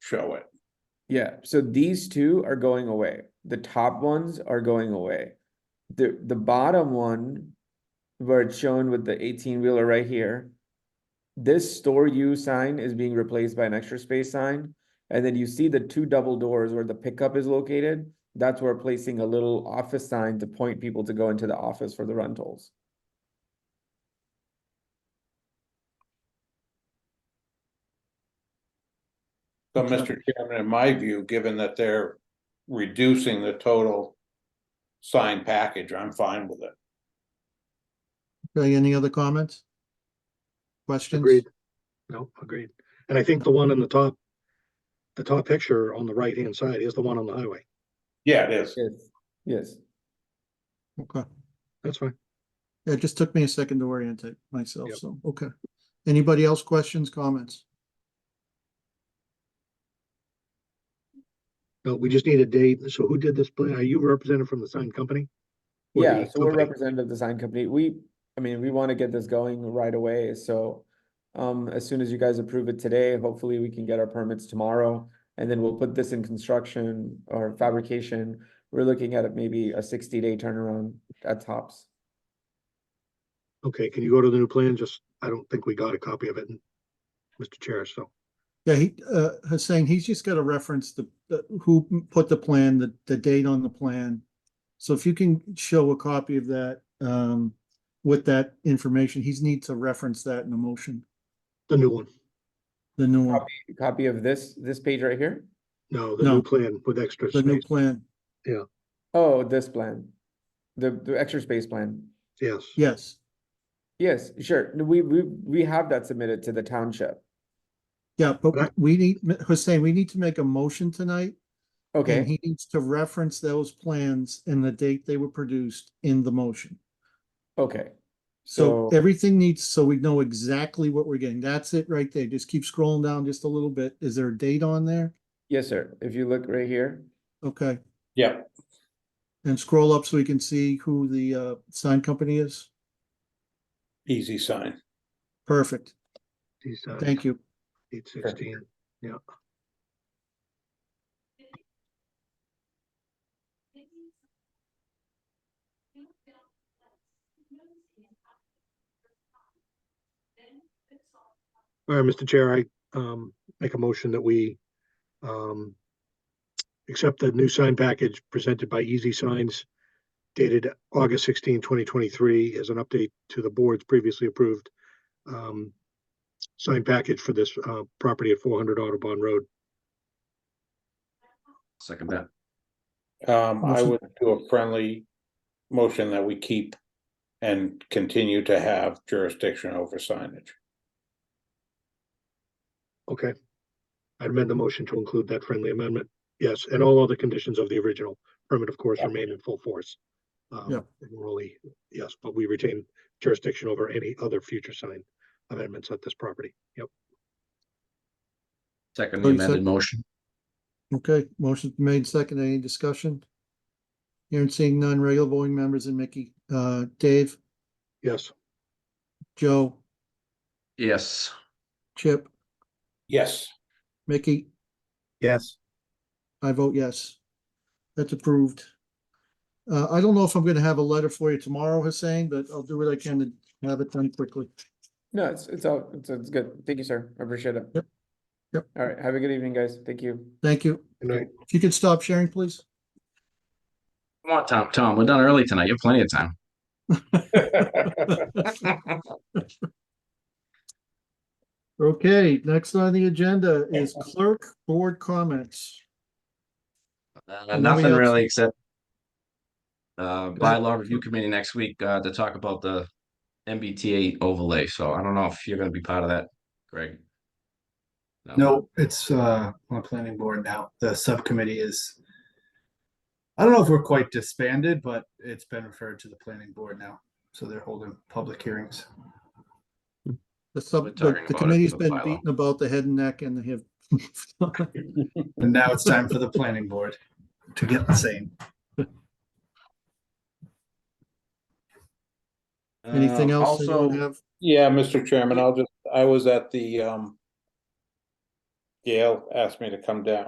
show it. Yeah, so these two are going away. The top ones are going away. The the bottom one, where it's shown with the eighteen wheeler right here. This store U sign is being replaced by an extra space sign. And then you see the two double doors where the pickup is located. That's where placing a little office sign to point people to go into the office for the rentals. So, Mr. Chairman, in my view, given that they're reducing the total sign package, I'm fine with it. Okay, any other comments? Questions? Agreed. No, agreed. And I think the one on the top, the top picture on the right-hand side is the one on the highway. Yeah, it is. Yes. Yes, Okay, That's fine. it just took me a second to orientate myself, Yep. so, okay. Anybody else questions, comments? No, we just need a date. So who did this plan? Are you represented from the sign company? Or yeah, the so we're company? representative design company. We, I mean, we wanna get this going right away, so. Um, as soon as you guys approve it today, hopefully we can get our permits tomorrow. And then we'll put this in construction or fabrication. We're looking at it maybe a sixty day turnaround at tops. Okay, can you go to the new plan? Just, I don't think we got a copy of it, Mr. Chair, so. Yeah, he, uh, Hussein, he's just gotta reference the, the- who put the plan, the, the date on the plan. So if you can show a copy of that, um, with that information, he's need to reference that in the motion, The new one, the new one, Copy of this, this page right here? no, the No. new plan with extra the new space, plan, Oh, this plan. The, the extra space plan. yes. yes, Yes, sure. No, We, we, we have that submitted to the township. yeah, Right. but we need, Hussein, we need to make a motion tonight. And Okay, he needs to reference those plans and the date they were produced in the motion. okay. So So- everything needs, so we know exactly what we're getting. That's it right there. Just keep scrolling down just a little bit. Is there a date on there? Yes, sir. If you look right here, Okay, Yeah, and scroll up so we can see who the uh sign company is. easy sign. Perfect. These, uh, Thank you. Eight sixteen, yeah. All right, Mr. Chair, I, um, make a motion that we, um, accept the new sign package presented by Easy Signs dated August 16, 2023, as an update to the board's previously approved, um, sign package for this, uh, property at four hundred Audubon Road. Second that. Um, I Motion. would do a friendly motion that we keep and continue to have jurisdiction over signage. Okay. I amend the motion to include that friendly amendment. Yes, and all other conditions of the original permit, of course, Yeah. remain in full force. Um, Yeah. and we're only- yes, but we retain jurisdiction over any other future sign amendments at this property. Yep. Second So the you said- amended motion. Okay, motion's been made second. Any discussion? Hearing seeing none, regular voting members and Mickey, uh, Dave, Yes, Joe, Yes, Chip, Yes, Mickey, Yes, I vote yes. That's approved. Uh, I don't know if I'm gonna have a letter for you tomorrow, Hussein, but I'll do what I can to have it done quickly. no, it's, it's all, it's, it's good. Thank you, sir. I appreciate it. Yep. Yep. All right, have a good evening, guys. Thank you. Thank you. and I, If you could stop sharing, please. come on, Tom, Tom, we're done early tonight. You have plenty of time. Okay, next on the agenda is clerk board comments. Uh, And then we nothing have- really except uh, bylaw review committee next week, uh, to talk about the MBTA overlay. So I don't know if you're gonna be part of that, Greg. no, it's uh on the planning board now. The subcommittee is. I don't know if we're quite disbanded, but it's been referred to the planning board now, so they're holding public hearings. The We're sub, talking the- about the it, committee's the been bylaw. beaten about the head and neck and the hip. And now it's time for the planning board to get the same. Anything Uh, else also- anyone have? Yeah, Mr. Chairman, I'll just, I was at the um. Gail asked me to come down,